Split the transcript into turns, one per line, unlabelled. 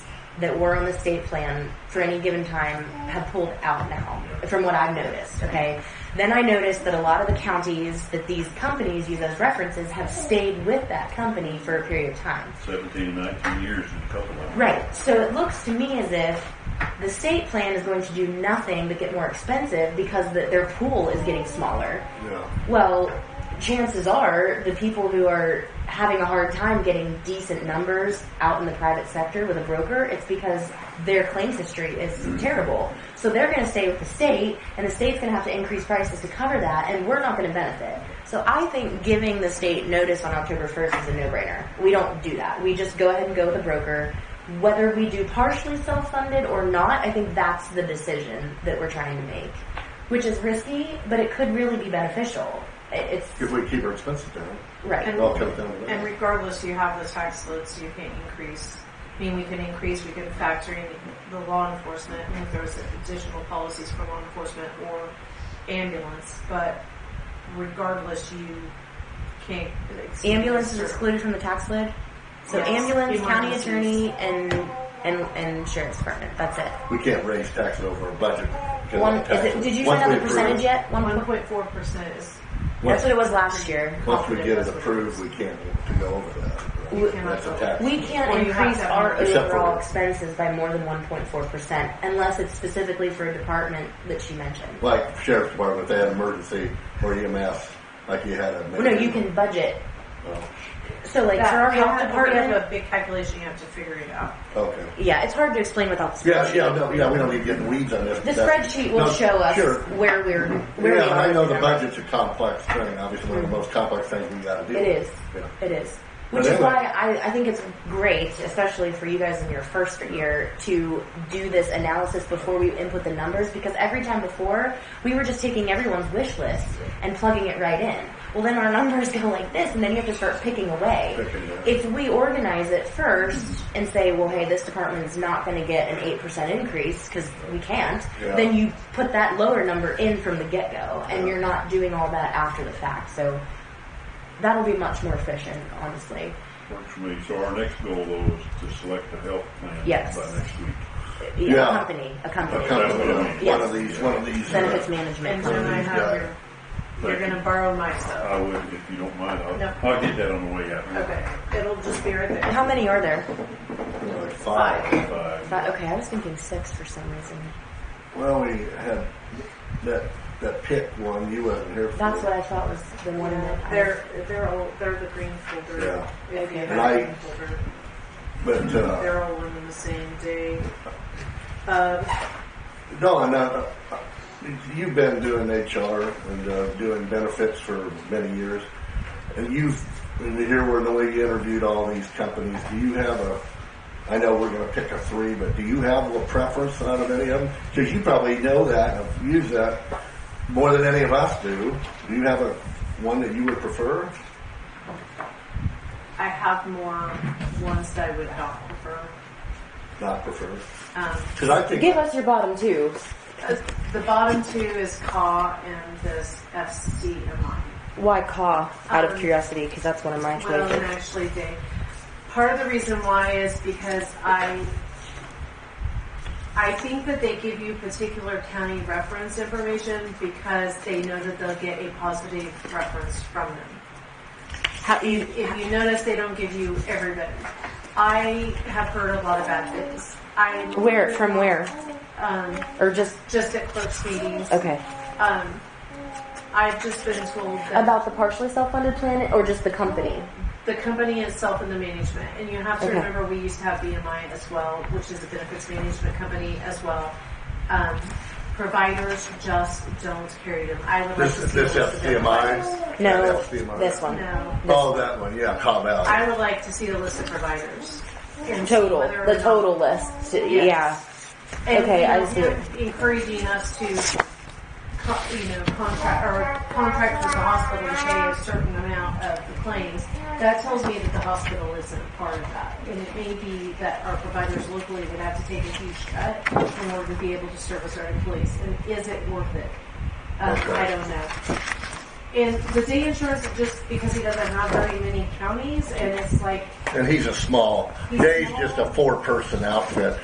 that were on the state plan for any given time have pulled out now, from what I've noticed, okay? Then I noticed that a lot of the counties that these companies use as references have stayed with that company for a period of time.
17, 19 years in a couple of them.
Right. So it looks to me as if the state plan is going to do nothing but get more expensive because the, their pool is getting smaller.
Yeah.
Well, chances are the people who are having a hard time getting decent numbers out in the private sector with a broker, it's because their claims history is terrible. So they're going to stay with the state, and the state's going to have to increase prices to cover that, and we're not going to benefit. So I think giving the state notice on October 1st is a no-brainer. We don't do that. We just go ahead and go with a broker. Whether we do partially self-funded or not, I think that's the decision that we're trying to make, which is risky, but it could really be beneficial. It- It's
If we keep our expenses down,
right.
it all comes down to
And
that.
regardless, you have the tax load, so you can increase. I mean, we can increase, we can factor in the law enforcement, and if there's additional policies for law enforcement or ambulance, but regardless, you can't. exceed
ambulance is
certain-
excluded from the tax lid. So
Yes.
ambulance, county
Emergencies.
attorney, and and and insurance department. That's it.
We can't raise taxes over our budget. because of
One
the
is it?
taxes.
Did you
Once
find
we
out the
approve-
percentage yet? One.
One
point-
point four percent is.
That's what it was last year.
Once we get it approved, we can't to go over that.
We-
That's a tax.
We
Or
can't
you have
increase
to-
our
Except for-
overall expenses by more than 1.4% unless it's specifically for a department that you mentioned.
Like sheriff's department, they had emergency or EMS, like you had a.
Well, no, you can budget.
Oh,
So like for our
That-
health
that- we
department,
have a big calculation, you have to figure it out.
Okay.
yeah, it's hard to explain without the
Yeah,
spreadsheet.
yeah, no, yeah, we don't need to get in the weeds on this.
The
but that's-
spreadsheet will
no,
show us
Sure.
where we're where
Yeah,
we are.
I know the
with our-
budget's a complex thing, obviously one of the most complex things we gotta do.
It is.
Yeah.
It is.
But
Which is
anyway.
why I, I think it's great, especially for you guys in your first year, to do this analysis before we input the numbers because every time before, we were just taking everyone's wish list and plugging it right in. Well, then our numbers go like this, and then you have to start picking away.
Picking away.
If we organize it first and say, well, hey, this department is not going to get an 8% increase because we can't,
Yeah.
then you put that lower number in from the get go, and you're not doing all that after the fact. So That'll be much more efficient, honestly.
Works for me. So our next goal though is to select a health plan
Yes.
by next week.
Yeah.
A company, a company.
A company,
That's what I mean.
one of these, one of these. uh,
Benefits
And
management.
Jen, I have your, you're
Thank you.
gonna borrow my stuff.
I would, if you don't mind, I'll,
No.
I'll get that on the way out.
Okay, it'll just be right there.
How many are there?
you know, like Five.
Five.
Five. Okay, I was thinking six for some reason.
Well, we had that, that pick one, you wasn't here for.
That's what I thought was the one that I
They're they're all they're the green folder.
Yeah.
If you
Okay.
have
And I-
green folder,
But, uh,
they're all in the same day. Um,
no, and, uh, you've been doing HR and, uh, doing benefits for many years. And you've, and here we're in the way you interviewed all these companies. Do you have a, I know we're gonna pick a three, but do you have a preference out of any of them? Cause you probably know that and have used that more than any of us do. Do you have a, one that you would prefer?
I have more ones that I would not prefer.
Not prefer?
Um,
Cause I think.
Give us your bottom two.
uh, the bottom two is CAW and this FCMI.
Why caw? Out of
Um,
curiosity, because that's one of my
Well, and
choices.
actually, Dave, part of the reason why is because I, I think that they give you particular county reference information because they know that they'll get a positive reference from them.
How, you,
If you notice, they don't give you everybody. I have heard a lot of bad things. I
where? From where?
Um,
Or just
just at clerks meetings.
okay?
Um, I've just been told that
About the partially self-funded plan, or just the company?
the company itself and the management. And you have to
Okay.
remember we used to have BMI as well, which is a benefits management company as well. Um, providers just don't carry them. I would
This
like to
is
see
this
a list of them.
FDMI?
No,
That's FDMI.
this one.
No.
Oh, that one, yeah, Cobb Valley.
I would like to see the list of providers. and see
Total,
whether or
the
not-
total list. Yeah.
And,
Okay,
you know,
I see it.
him Encouraging us to, co- you know, contract or contract with the hospital to pay a certain amount of the claims. That tells me that the hospital isn't a part of that, and it may be that our providers locally would have to take a huge cut in order to be able to service our employees. And is it worth it? Um,
Okay.
I don't know. And the day insurance, just because he doesn't have very many counties, and it's like
And he's a small,
He's
Jay's
small.
just a four-person outfit.